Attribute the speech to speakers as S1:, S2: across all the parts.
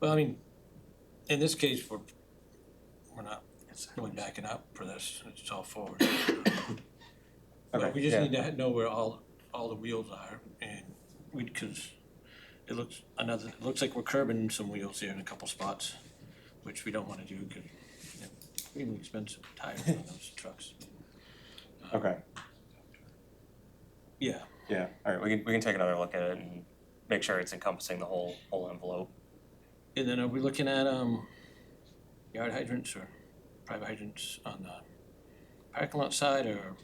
S1: Well, I mean, in this case, we're, we're not really backing up for this, it's all forward. But we just
S2: yeah.
S1: need to know where all, all the wheels are and we, cause it looks, another, it looks like we're curbing some wheels here in a couple spots, which we don't wanna do, cause they're really expensive tires on those trucks.
S2: Okay,
S1: Yeah,
S2: yeah,
S3: All right, we can, we can take another look at it and make sure it's encompassing the whole, whole envelope.
S1: and then are we looking at, um, yard hydrants or private hydrants on the parking lot side or?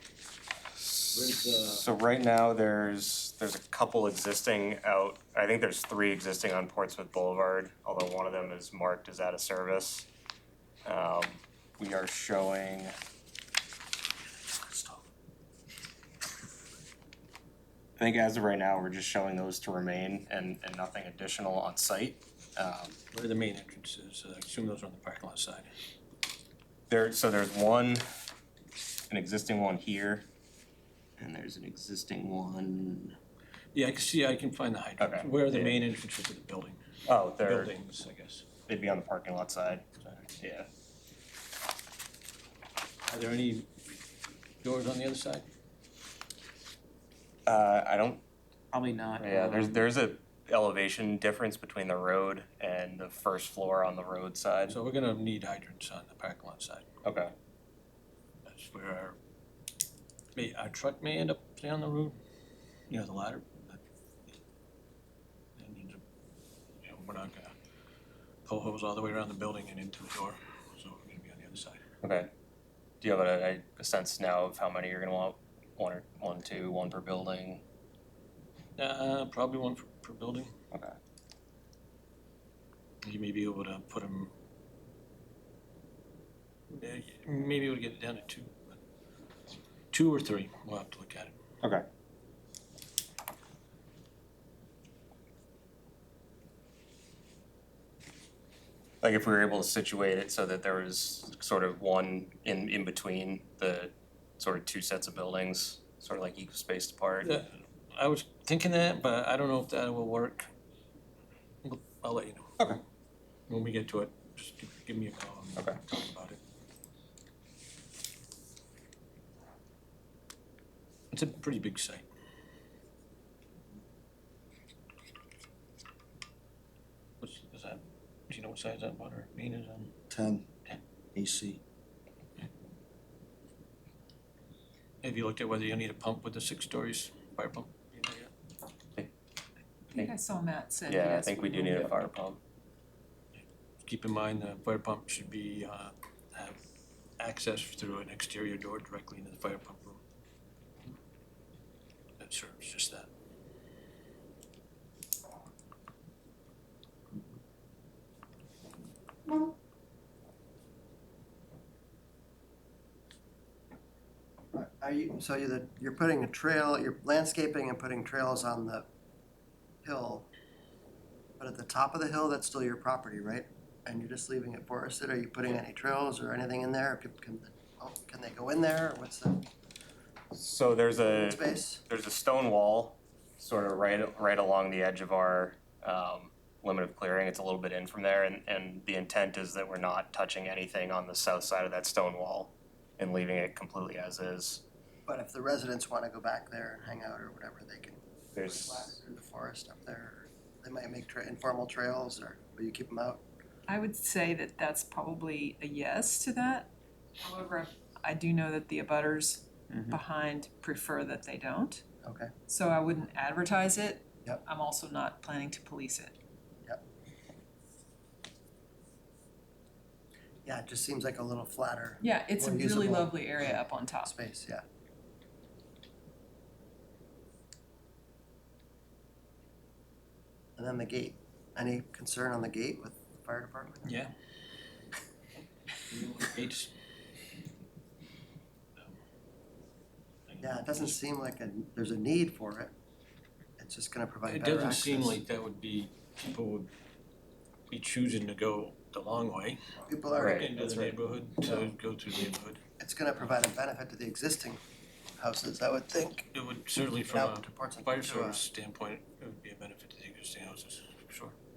S1: Where's the?
S3: So right now, there's, there's a couple existing out, I think there's three existing on Portsmouth Boulevard, although one of them is marked as out of service. Um, we are showing. I think as of right now, we're just showing those to remain and, and nothing additional on site. Um,
S1: Where the main entrance is, I assume those are on the parking lot side.
S3: There, so there's one, an existing one here, and there's an existing one.
S1: Yeah, I can see, I can find the hydrant,
S3: Okay.
S1: where are the main entrances to the building,
S3: Oh, they're,
S1: buildings, I guess.
S3: they'd be on the parking lot side, yeah.
S1: Are there any doors on the other side?
S3: Uh, I don't,
S4: Probably not.
S3: yeah, there's,
S4: um,
S3: there's a elevation difference between the road and the first floor on the road side.
S1: So we're gonna need hydrants on the parking lot side,
S3: Okay.
S1: that's where our, may, our truck may end up down the road, you know, the ladder. but That needs a, you know, we're not gonna pull hose all the way around the building and into the door, so we're gonna be on the other side.
S3: Okay. Do you have a, a sense now of how many you're gonna want, one or, one, two, one per building?
S1: Uh, probably one per, per building.
S3: Okay.
S1: You may be able to put eh, them. Maybe we'll get it down to two, but two or three, we'll have to look at it.
S2: okay.
S3: Like if we were able to situate it so that there was sort of one in, in between the sort of two sets of buildings, sort of like equal spaced apart.
S1: Yeah, I was thinking that, but I don't know if that will work. I'll- I'll let you know.
S2: Okay.
S1: When we get to it, just give, give me a call and
S2: Okay.
S1: talk about it. It's a pretty big site. What's, is that, do you know what size that water main is on?
S5: ten
S1: Ten.
S5: AC.
S1: Have you looked at whether you'll need a pump with the six stories fire pump? You know yet?
S4: I think I saw Matt said yes.
S3: Yeah, I think we do
S4: will.
S3: need a fire pump.
S1: Keep in mind, the fire pump should be, uh, have access through an exterior door directly into the fire pump room. That serves just that.
S6: Are you, so you're, the- you're putting a trail, you're landscaping and putting trails on the hill, but at the top of the hill, that's still your property, right? And you're just leaving it forested, are you putting any trails or anything in there? Can, can, oh, can they go in there? What's the
S3: So there's a,
S6: space?
S3: there's a stone wall sort of right, right along the edge of our, um, limit of clearing. It's a little bit in from there and, and the intent is that we're not touching anything on the south side of that stone wall and leaving it completely as is.
S6: But if the residents wanna go back there and hang out or whatever, they can
S3: There's.
S6: flat through the forest up there. or They might make tra- informal trails or, will you keep them out?
S4: I would say that that's probably a yes to that. However, I do know that the abutters
S5: Mhm.
S4: behind prefer that they don't.
S6: Okay,
S4: So I wouldn't advertise it.
S6: Yep.
S4: I'm also not planning to police it.
S6: yeah, it just seems like a little flatter
S4: Yeah, it's a
S6: More
S4: really
S6: usable.
S4: lovely area up on top.
S6: space, yeah. And then the gate, any concern on the gate with the fire department?
S1: Yeah. Gates.
S6: Yeah, it doesn't seem like a, there's a need for it. It's just gonna provide
S1: It
S6: better
S1: doesn't
S6: access.
S1: seem like that would be, people would be choosing to go the long way
S6: People are,
S3: Right.
S1: into the
S3: that's right.
S1: neighborhood, to go through the neighborhood.
S6: it's gonna provide a benefit to the existing houses, I would think.
S1: It would certainly from
S6: Out
S1: a
S6: to Portsmouth
S1: fire
S6: to, uh,
S1: service standpoint, it would be a benefit to the existing houses.